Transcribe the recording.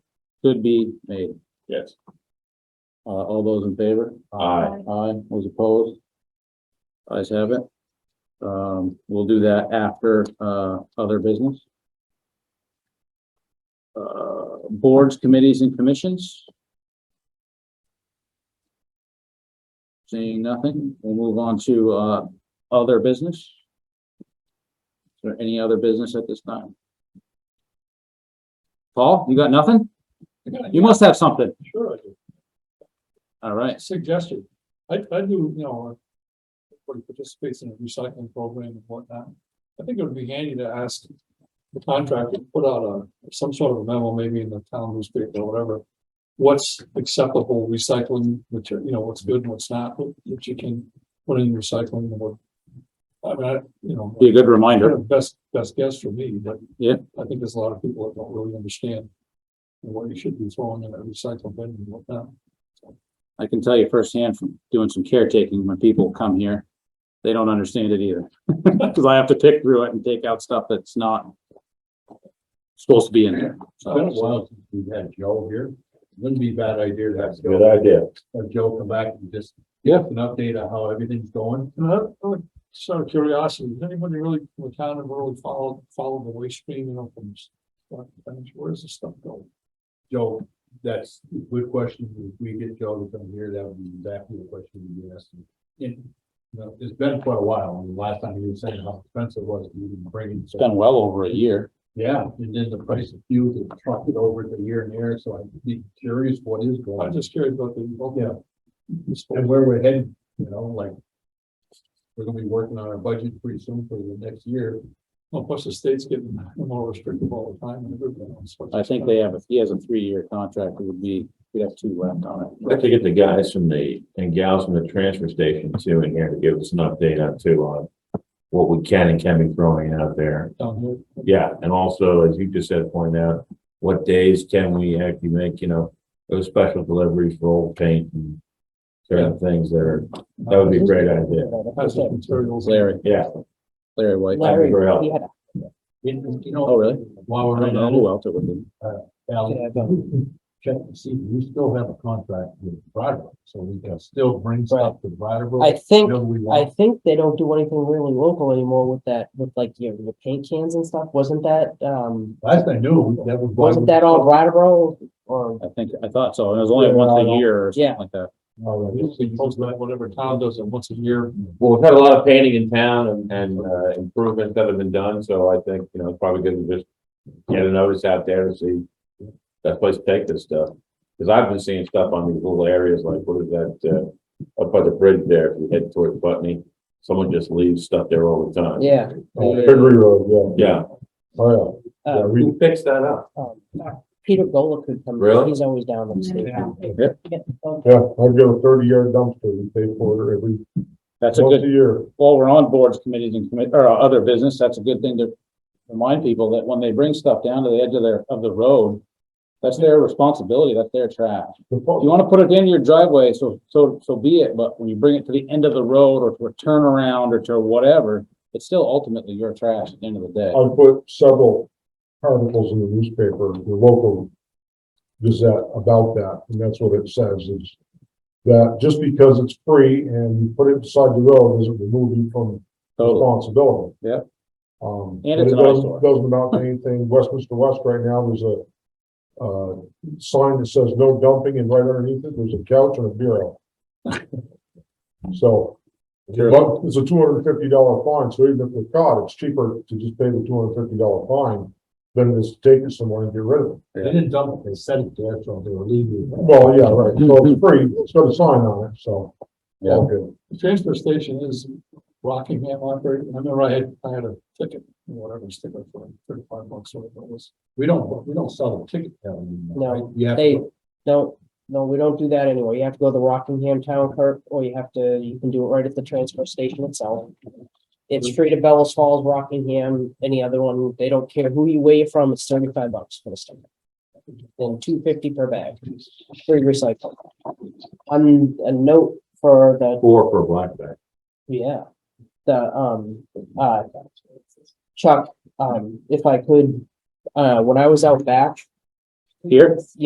could be made. Yes. Uh, all those in favor? Aye. Aye, those opposed? Ayes have it. Um, we'll do that after, uh, other business. Uh, boards, committees and commissions? Seeing nothing, we'll move on to, uh, other business. Is there any other business at this time? Paul, you got nothing? You must have something. Sure, I do. All right. Suggestion. I, I do, you know, uh, everybody participates in a recycling program and whatnot. I think it would be handy to ask the contractor to put out a, some sort of a memo, maybe in the town newspaper or whatever. What's acceptable recycling material, you know, what's good and what's not, what what you can put in recycling and what. I mean, I, you know. Be a good reminder. Kind of Best, best guess for me, but. Yeah. I think there's a lot of people that don't really understand what you should be throwing in a recycle bin and whatnot. I can tell you firsthand from doing some caretaking, when people come here, they don't understand it either. Cause I have to pick through it and take out stuff that's not supposed to be in there. It's been a while. since we've had Joe here. Wouldn't be a bad idea to have Good Joe, idea. have Joe come back and just give us an update on how everything's going. And that- oh, Just out of curiosity, does anybody really, from the town ever really follow, follow the waste stream, you know, from? s- what- Where's this stuff going? Joe, that's a good question. If we get Joe to come here, that would be exactly the question we asked him. And, you know, it's been quite a while. And last time he was saying how expensive it was to even bring it. It's been well over a year. Yeah, and then the price of fuel to truck it over the year and there. So I'd be curious what is going on. I'm just curious about the. Yeah. This whole- and where we're heading, you know, like. We're gonna be working on our budget pretty soon for the next year. Well, plus the state's getting more restrictive all the time and everything. else. I think they have, a he has a three-year contract, it would be, we'd have two left on it. I'd like to get the guys from the, and gals from the transfer station too in here to give us an update on too on what we can and can be throwing out there. Down here. Yeah, and also, as you just said, point out, what days can we actually make, you know, those special deliveries for old paint and certain things that are, that would be a great idea. Has the materials. Larry, Yeah. Larry White. That'd be Larry, great help. he had And, you Oh, know, really? while I we're don't know on who else it would be. that, Alan, check to see, we still have a contract with Brattleboro, so we can still bring stuff to a- Brattleboro. I think, whenever we I want. think they don't do anything really local anymore with that, with like your, your paint cans and stuff. Wasn't that, um, Last I knew, that was. why wasn't we- that all Brattleboro or? I think, I thought so. It was only once a year or something Yeah. like that. Oh, that is- Most of that, Whatever town does it once a year. Well, we've had a lot of painting in town and, and, uh, improvements that have been done, so I think, you know, it's probably good to just get a notice out there to see that place to take this stuff. Cause I've been seeing stuff on these little areas, like what is that, uh, up by the bridge there, if you head towards Putney, someone just leaves stuff there all the time. Yeah. Oh, Henry Road, yeah. Yeah, Oh, uh, who picks that up? um, Peter Gola could come. Really? He's always down in the state. yeah. Yeah, I've got a thirty yard dumpster, we pay for it every, That's a good, year. while we're on boards, committees and commit, or uh, other business, that's a good thing to remind people that when they bring stuff down to the edge of their, of the road, that's their responsibility, that's their trash. If you wanna put it in your driveway, so, so, so be it, but when you bring it to the end of the road or to a turnaround or to whatever, it's still ultimately your trash at the end of the day. I put several articles in the newspaper, the local Gazette about that, and that's what it says is that just because it's free and you put it beside the road doesn't remove you from Oh, Totally. responsibility. Yeah. Um, And but it's it an doesn't, eyesore. doesn't amount to anything. Westminster West right now, there's a uh, sign that says no dumping and right underneath it, there's a couch and a bureau. So but it's a two hundred and fifty dollar fine, so even if we're caught, it's cheaper to just pay the two hundred and fifty dollar fine than it is to take it somewhere and get rid of it. They didn't dump it, they set it there, so they were leaving. Well, yeah, right, so Mm-hmm. it's free, it's got a sign on it, so. Yeah. Okay. The transfer station is Rockingham operated. I remember I had, I had a ticket, whatever sticker for thirty-five bucks or whatever it was. We don't, we don't sell the ticket. down anymore, No, right? You have to They don't, no, we don't do that anymore. You have to go to the Rockingham Town Clerk or you have to, you can do it right at the transfer station itself. It's free to Bellas Falls, Rockingham, any other one. They don't care who you weigh you from. It's thirty-five bucks for the sticker. And two fifty per bag, free recycling. On a note for the Or for a black bag. yeah, the, um, uh, Chuck, um, if I could, uh, when I was out back. Here?